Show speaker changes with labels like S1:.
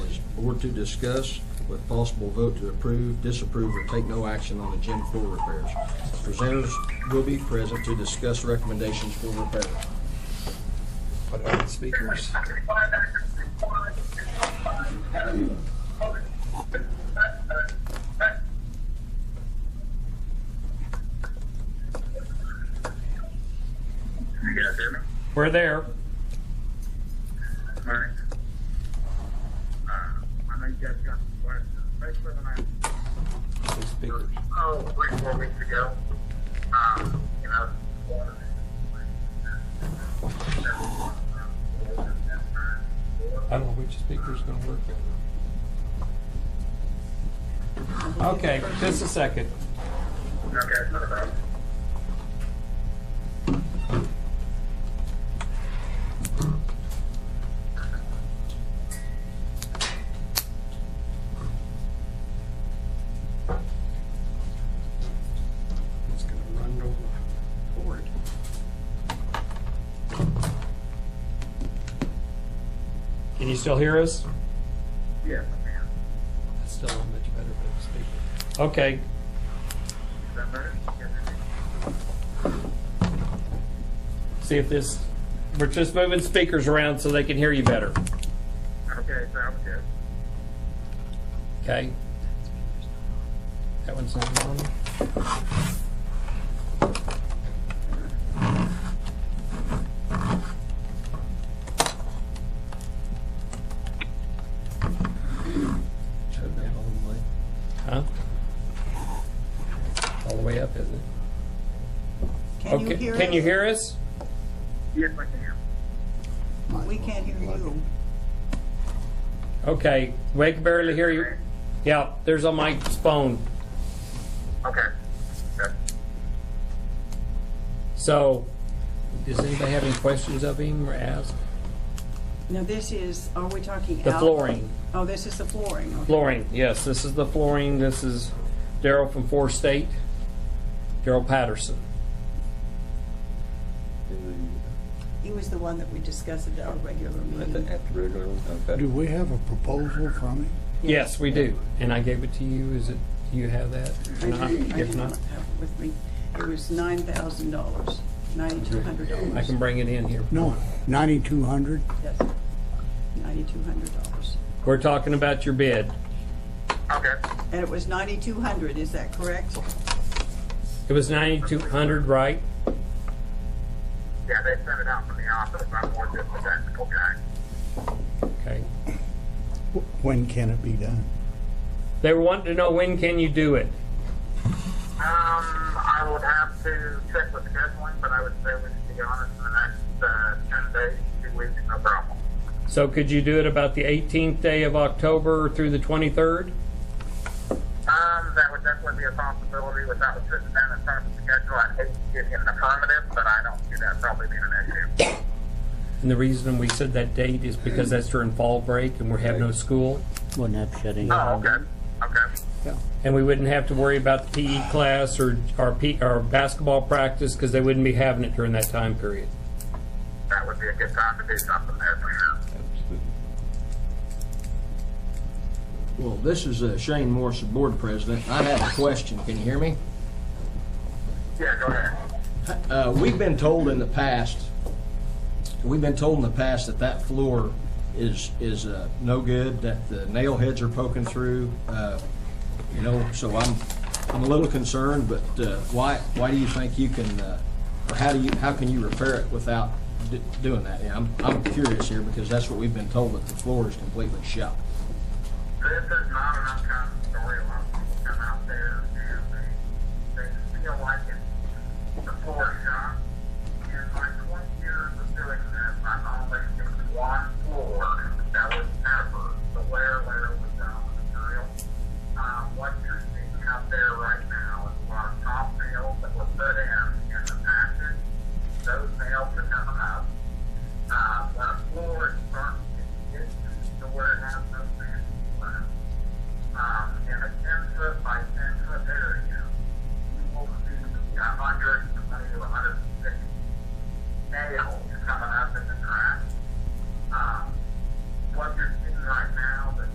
S1: or to discuss with possible vote to approve, disapprove, or take no action on the gym floor repairs. Presenters will be present to discuss recommendations for repairs.
S2: What about the speakers?
S3: You guys hear me?
S4: We're there.
S3: All right. Uh, I know you guys got some questions. Basically, when I
S2: Two speakers.
S3: oh, three, four weeks ago. Um, you know, water.
S2: I don't know which speaker's gonna work.
S4: Okay, just a second.
S3: Okay, not a problem.
S2: It's gonna run over the board.
S4: Can you still hear us?
S3: Yes, ma'am.
S2: That's still not much better than the speaker.
S4: Okay.
S3: Is that better? Yes, it is.
S4: See if this, we're just moving speakers around so they can hear you better.
S3: Okay, sounds good.
S4: Okay? That one's not on.
S2: Shut down all the way.
S4: Huh?
S2: All the way up, isn't it?
S5: Can you
S4: Okay,
S5: hear us?
S4: can you hear us?
S3: Yes, I can.
S5: We can't hear you.
S4: Okay, we can barely hear you. Yeah, there's on my phone.
S3: Okay. Okay.
S4: So, does anybody have any questions of him or ask?
S5: Now, this is, are we talking?
S4: The
S5: out-
S4: flooring.
S5: Oh, this is the flooring. okay.
S4: Flooring, yes, this is the flooring. This is Daryl from Four State, Daryl Patterson.
S5: He was the one that we discussed at our regular meeting.
S6: Do we have a proposal from him?
S4: Yes, we do. And I gave it to you. Is it, do you have that?
S5: I
S4: Or not?
S5: didn't- I
S4: If
S5: did
S4: not,
S5: not have it with me. It was nine thousand dollars, ninety-two hundred dollars.
S4: I can bring it in here.
S6: No, 9,200?
S5: Yes, ninety-two hundred dollars.
S4: We're talking about your bid.
S3: Okay.
S5: And it was ninety-two hundred, is that correct?
S4: It was ninety-two hundred, right?
S3: Yeah, they sent it out from the office. I'm more just a technical guy.
S4: Okay.
S6: When can it be done?
S4: They were wanting to know when can you do it?
S3: Um, I would have to check with the scheduling, but I would say we should be honest in the next uh, 10 days, two weeks, no problem.
S4: So could you do it about the eighteenth day of October through the twenty-third?
S3: Um, that would definitely be a possibility without sitting down in front of the schedule. I'd hate to give him an affirmative, but I don't see that probably being an issue.
S4: And the reason we said that date is because that's during fall break and we have no school.
S7: Wouldn't have shut any.
S3: Oh, okay. Okay.
S4: And we wouldn't have to worry about the PE class or, or P, or basketball practice because they wouldn't be having it during that time period.
S3: That would be a good time to do something there. you know.
S1: Well, this is uh, Shane Morris, the board president. I have a question. Can you hear me?
S3: Yeah, go ahead.
S1: Uh, We've been told in the past, we've been told in the past that that floor is, is uh, no good, that the nail heads are poking through, uh, you know, so I'm, I'm a little concerned, but uh, why, why do you think you can, uh, or how do you, how can you repair it without d- doing that? Yeah, I'm, I'm curious here because that's what we've been told, that the floor is completely shot.
S3: This is not an uncommon Uh,